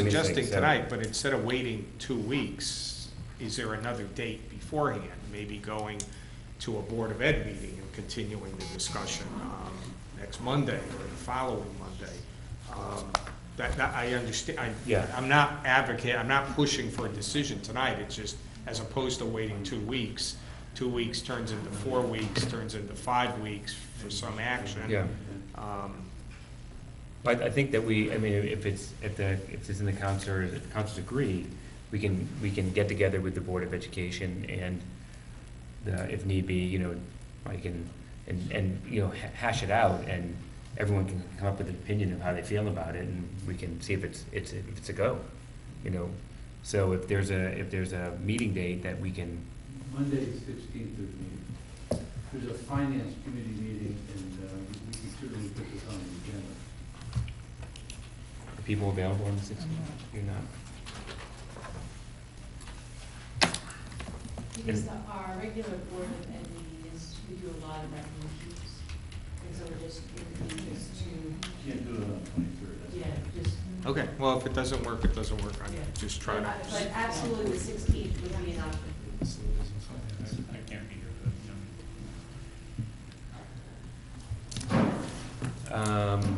suggesting so. tonight, but instead of waiting two weeks, is there another date beforehand? Maybe going to a Board of Ed meeting and continuing the discussion um, next Monday or the following Monday? Um, That, that, I understand, I, Yeah. I'm not advocate, I'm not pushing for a decision tonight, it's just, as opposed to waiting two weeks, two weeks turns into four weeks, turns into five weeks for some action. Yeah. Um, But I think that we, I mean, if it's, if the, if it's in the council, if the councils agree, we can, we can get together with the Board of Education and the, if need be, you know, I can, and, and, you know, ha- hash it out and everyone can come up with an opinion of how they feel about it and we can see if it's, it's, if it's a go, you know? So if there's a, if there's a meeting date that we can, Monday, the sixteenth of May. There's a finance committee meeting, and uh, we can certainly put this on the agenda. are people available on the sixteenth? You're not? Because the- our regular board of ed meeting is, we do a lot of resolutions, and so we're just, we just to, Can't do it on the twenty-third, that's. yeah, just. Okay, well, if it doesn't work, it doesn't work, I'm Yeah. just trying to. But absolutely, the sixteenth would be an option. I can't be here, but, you know. Um,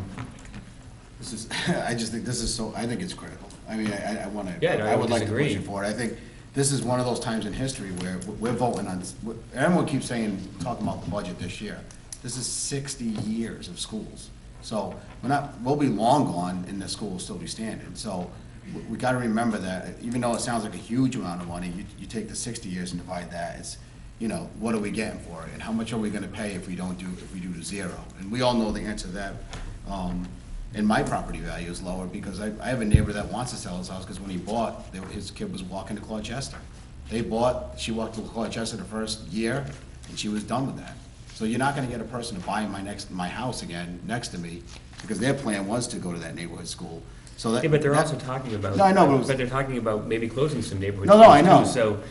This is, I just think this is so, I think it's critical. I mean, I, I- I wanna, Yeah, no, I I would like to push disagree. it forward. I think this is one of those times in history where we're voting on, everyone keeps saying, talking about the budget this year. This is sixty years of schools. So we're not, we'll be long gone and the school will still be standing. So we- we gotta remember that, even though it sounds like a huge amount of money, you, you take the sixty years and divide that, it's, you know, what are we getting for it? And how much are we gonna pay if we don't do, if we do zero? And we all know the answer to that. Um, and my property value is lower because I, I have a neighbor that wants to sell his house because when he bought, they- his kid was walking to Clarchester. They bought, she walked to Clarchester the first year and she was done with that. So you're not gonna get a person to buy my next, my house again, next to me, because their plan was to go to that neighborhood school. So that. Yeah, but they're that- also talking about. No, I know, but it was- they're talking about maybe closing some neighborhoods. No, no, I too, know. So,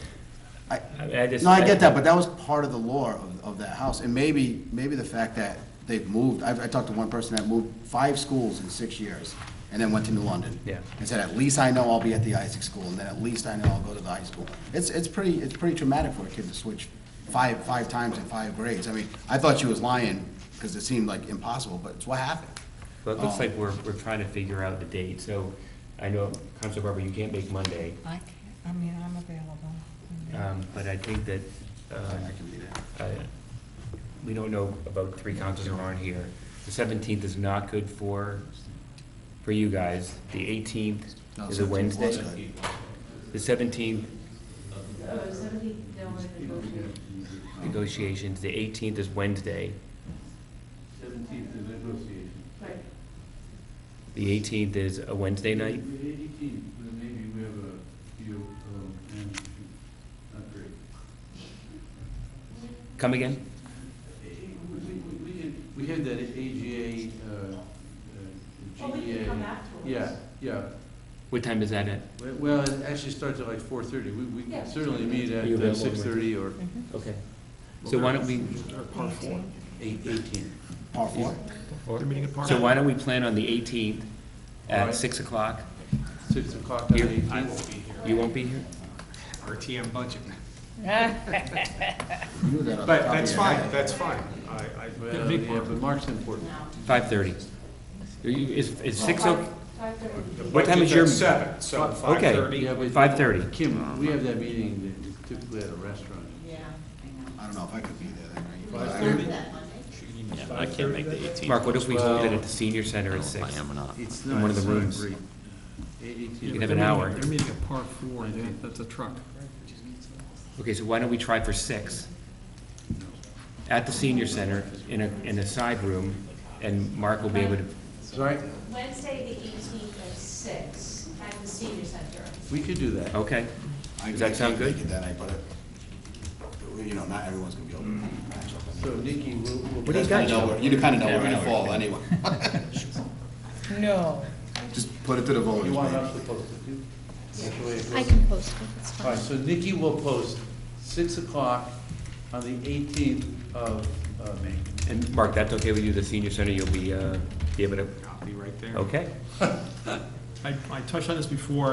I- I I just. No, I get that, but that was part of the lore of, of that house, and maybe, maybe the fact that they've moved, I've, I talked to one person that moved five schools in six years, and then went to New London. Yeah. And said, at least I know I'll be at the Isaac school, and then at least I know I'll go to the high school. It's, it's pretty, it's pretty traumatic for a kid to switch five, five times in five grades, I mean, I thought she was lying, because it seemed like impossible, but it's what happened. But it looks um, like we're, we're trying to figure out the date, so I know, Counselor Barber, you can't make Monday, I can't, I mean, I'm available. um, but I think that, I um, can be there. uh, we don't know about three councils who aren't here. The seventeenth is not good for, for you guys. The eighteenth No, is a 17th was Wednesday. good. The seventeenth, Oh, is somebody, no one negotiated. negotiations, the eighteenth is Wednesday. Seventeenth is negotiation. Right, The eighteenth is a Wednesday night. The eighteenth, then maybe we have a few, um, and, not great. Come again? Eh, We, we, we can, we have that AGA, uh, uh, well, we can GEA. come afterwards. Yeah, yeah. What time is that at? Well- Well, it actually starts at like four thirty. We, we Yeah. can certainly meet at uh, You available, six thirty or Okay. So why don't we, eight, eighteen. Par four? so why don't we plan on the 18th at Alright. 6 o'clock? Six o'clock on Here. the eighteenth. I won't be here. You won't be here? RTM budget. You knew that off But the top of that's your head. fine, that's fine. I, I, Well, yeah, but Mark's important. Now. 5:30. Are you- Is, is 6, Five- o- Five thirty. What time is your- Budget's at Seven, so five Okay. thirty. Yeah, but- 5:30? Kim, we have that meeting that is typically at a restaurant. Yeah, I I don't know if I could be there that night. know. but I- Remember that Monday? Yeah, I can't make the 18th. Mark, what if we Well- did it at the senior center at 6? I am or not. It's In not, one of it's the not rooms. great. Eight- eighteen. You can have an hour. They're meeting at par four, they- that's a truck. Okay, so why don't we try for 6? At the senior center, in a, in a side room, and Mark will be able to, Sorry, Wednesday, the eighteenth at six, at the senior center. we could do that. okay? I- Does that I sound can't make good? it that night, but, it- you know, not everyone's gonna be able to match up. So Nikki, we'll. we'll- What do you Mm-hmm. got? know where- You kinda know we're gonna fall anyway. No. Just put it to the voters, You want man. us to post it too? That's the way it I goes. can post it, it's All fine. right, so Nikki will post six o'clock on the eighteenth of, uh May. And Mark, that's okay with you, the senior center, you'll be, uh, be able to, I'll be right there. okay? I, I touched on this before,